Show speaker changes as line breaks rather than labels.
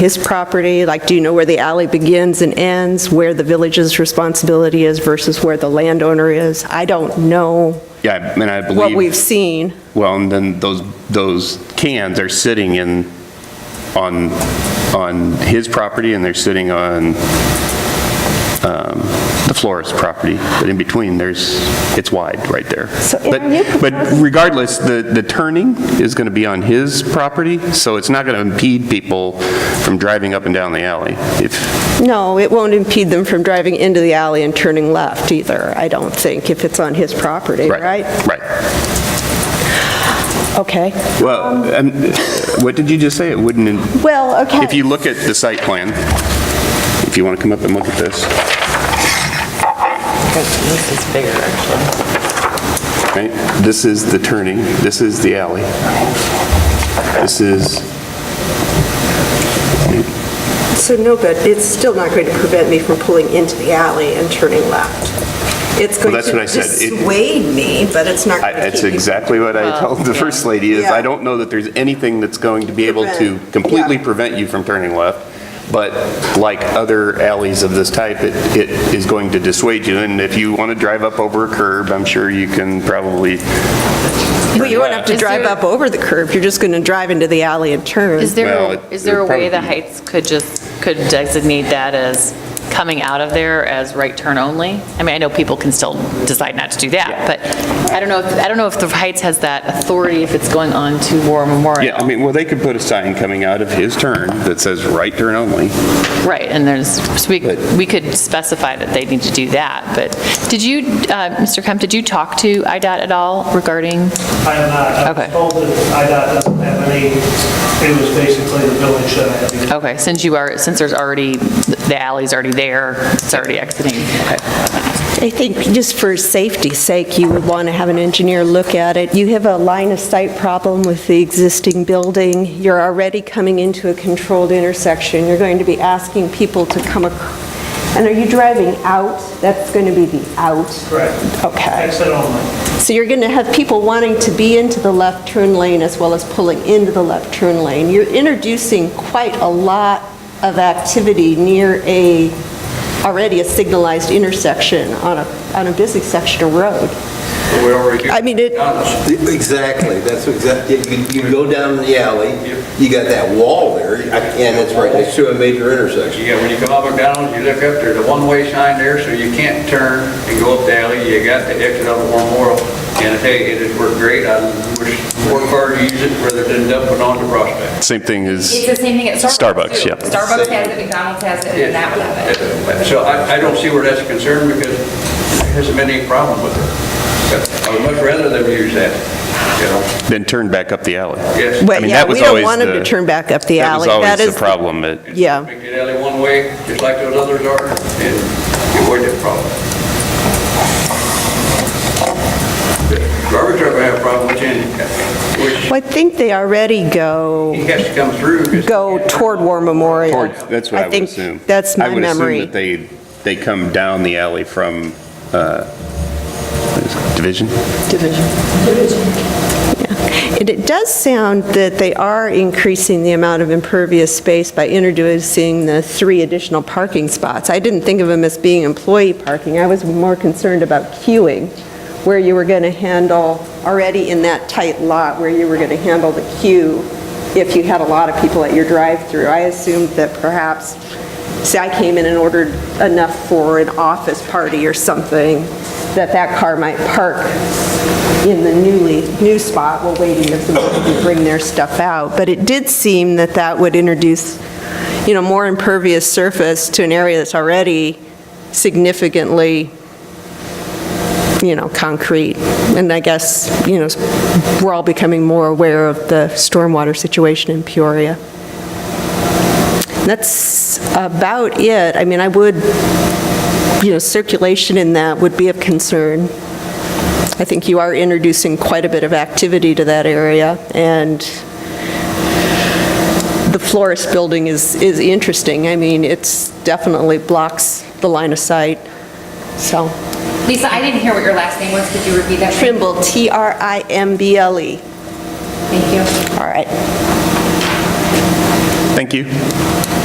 his property? Like, do you know where the alley begins and ends, where the village's responsibility is versus where the landowner is? I don't know
Yeah, and I believe.
what we've seen.
Well, and then those, those cans are sitting in, on, on his property, and they're sitting on um, the florist's property, but in between, there's, it's wide right there.
So, and
But-
are you
But regardless, the, the turning is going to be on his property, so it's not going to impede people from driving up and down the alley. If,
No, it won't impede them from driving into the alley and turning left either, I don't think, if it's on his property,
right,
right?
right.
Okay.
Well, um, what did you just say? It wouldn't, in-
Well, okay.
If you look at the site plan, if you want to come up and look at this,
This is bigger, actually.
right? This is the turning, this is the alley. This is,
So no good, it's still not going to prevent me from pulling into the alley and turning left. It's going
that's what I
to
said. It-
dissuade me, but it's not
I-
going to keep me
that's exactly what I told the first lady, is I
Uh, Yeah.
don't know that there's anything that's going to be able to
Prevent,
completely
yeah.
prevent you from turning left, but like other alleys of this type, it it is going to dissuade you, and if you want to drive up over a curb, I'm sure you can probably
Well, you won't have to
Is
drive
there-
up over the curb, you're just going to drive into the alley and turn.
Is there,
Well,
a- is there a
it'd
way the
probably be-
Heights could just, could designate that as coming out of there as right turn only? I mean, I know people can still decide not to do that, but I don't know, if- I don't know if the Heights has that authority if it's going on to War Memorial.
Yeah, I mean, well, they could put a sign coming out of his turn that says right turn only.
Right, and there's, so we,
But-
we could specify that they need to do that, but did you, uh, Mr. Kemp, did you talk to IDOT at all regarding?
I am not. I
Okay.
was told that IDOT doesn't have any, it was basically the village that I had to go
Okay, since you are, since there's already, the alley's already there, it's already exiting. Okay.
I think just for safety's sake, you would want to have an engineer look at it. You have a line of sight problem with the existing building. You're already coming into a controlled intersection. You're going to be asking people to come, ac- and are you driving out? That's going to be the out.
Correct.
Okay.
Exit only.
So you're going to have people wanting to be into the left turn lane as well as pulling into the left turn lane. You're introducing quite a lot of activity near a, already a signalized intersection on a, on a busy section of road.
We already do.
I mean, it-
Exactly, that's exactly, you you go down the alley, you got that wall there, and it's right next to a major intersection.
Yeah, when you come up McDonald's, you look up, there's a one-way sign there, so you can't turn and go up the alley. You got the exit of War Memorial. And I tell you, it has worked great. I wish more cars use it rather than dumping on the prospect.
Same thing as.
It's the same thing at Starbucks.
Starbucks,
too.
yeah.
Starbucks has it, McDonald's has it, and that would have it.
So I, I don't see where that's a concern because there hasn't been any problem with it. I would much rather them use that, you know,
Then turn back up the alley.
yes.
But
I mean,
yeah,
that was
we don't
always
want them
the-
to turn back up the alley. That
That was
is
always the problem. It-
Yeah.
Make it alley one way, just like those others are, and you avoid that problem. Garbage truck will have a problem with handicap, which
Well, I think they already go,
he has to come through. 'cause-
go toward War Memorial.
Or- That's what I would
think
assume.
that's my
I would assume
memory.
that they, they come down the alley from, uh, what is it, Division?
And it does sound that they are increasing the amount of impervious space by introducing the three additional parking spots. I didn't think of them as being employee parking. I was more concerned about queuing, where you were going to handle, already in that tight lot, where you were going to handle the queue if you had a lot of people at your drive-through. I assumed that perhaps, say I came in and ordered enough for an office party or something, that that car might park in the newly, new spot while waiting for somebody to bring their stuff out. But it did seem that that would introduce, you know, more impervious surface to an area that's already significantly, you know, concrete. And I guess, you know, we're all becoming more aware of the stormwater situation in Peoria. That's about it. I mean, I would, you know, circulation in that would be of concern. I think you are introducing quite a bit of activity to that area, and the florist building is, is interesting. I mean, it's definitely blocks the line of sight, so.
Lisa, I didn't hear what your last name was. Could you repeat that? for me?
Trimble, T-R-I-M-B-L-E.
Thank you.
All right.
Thank you.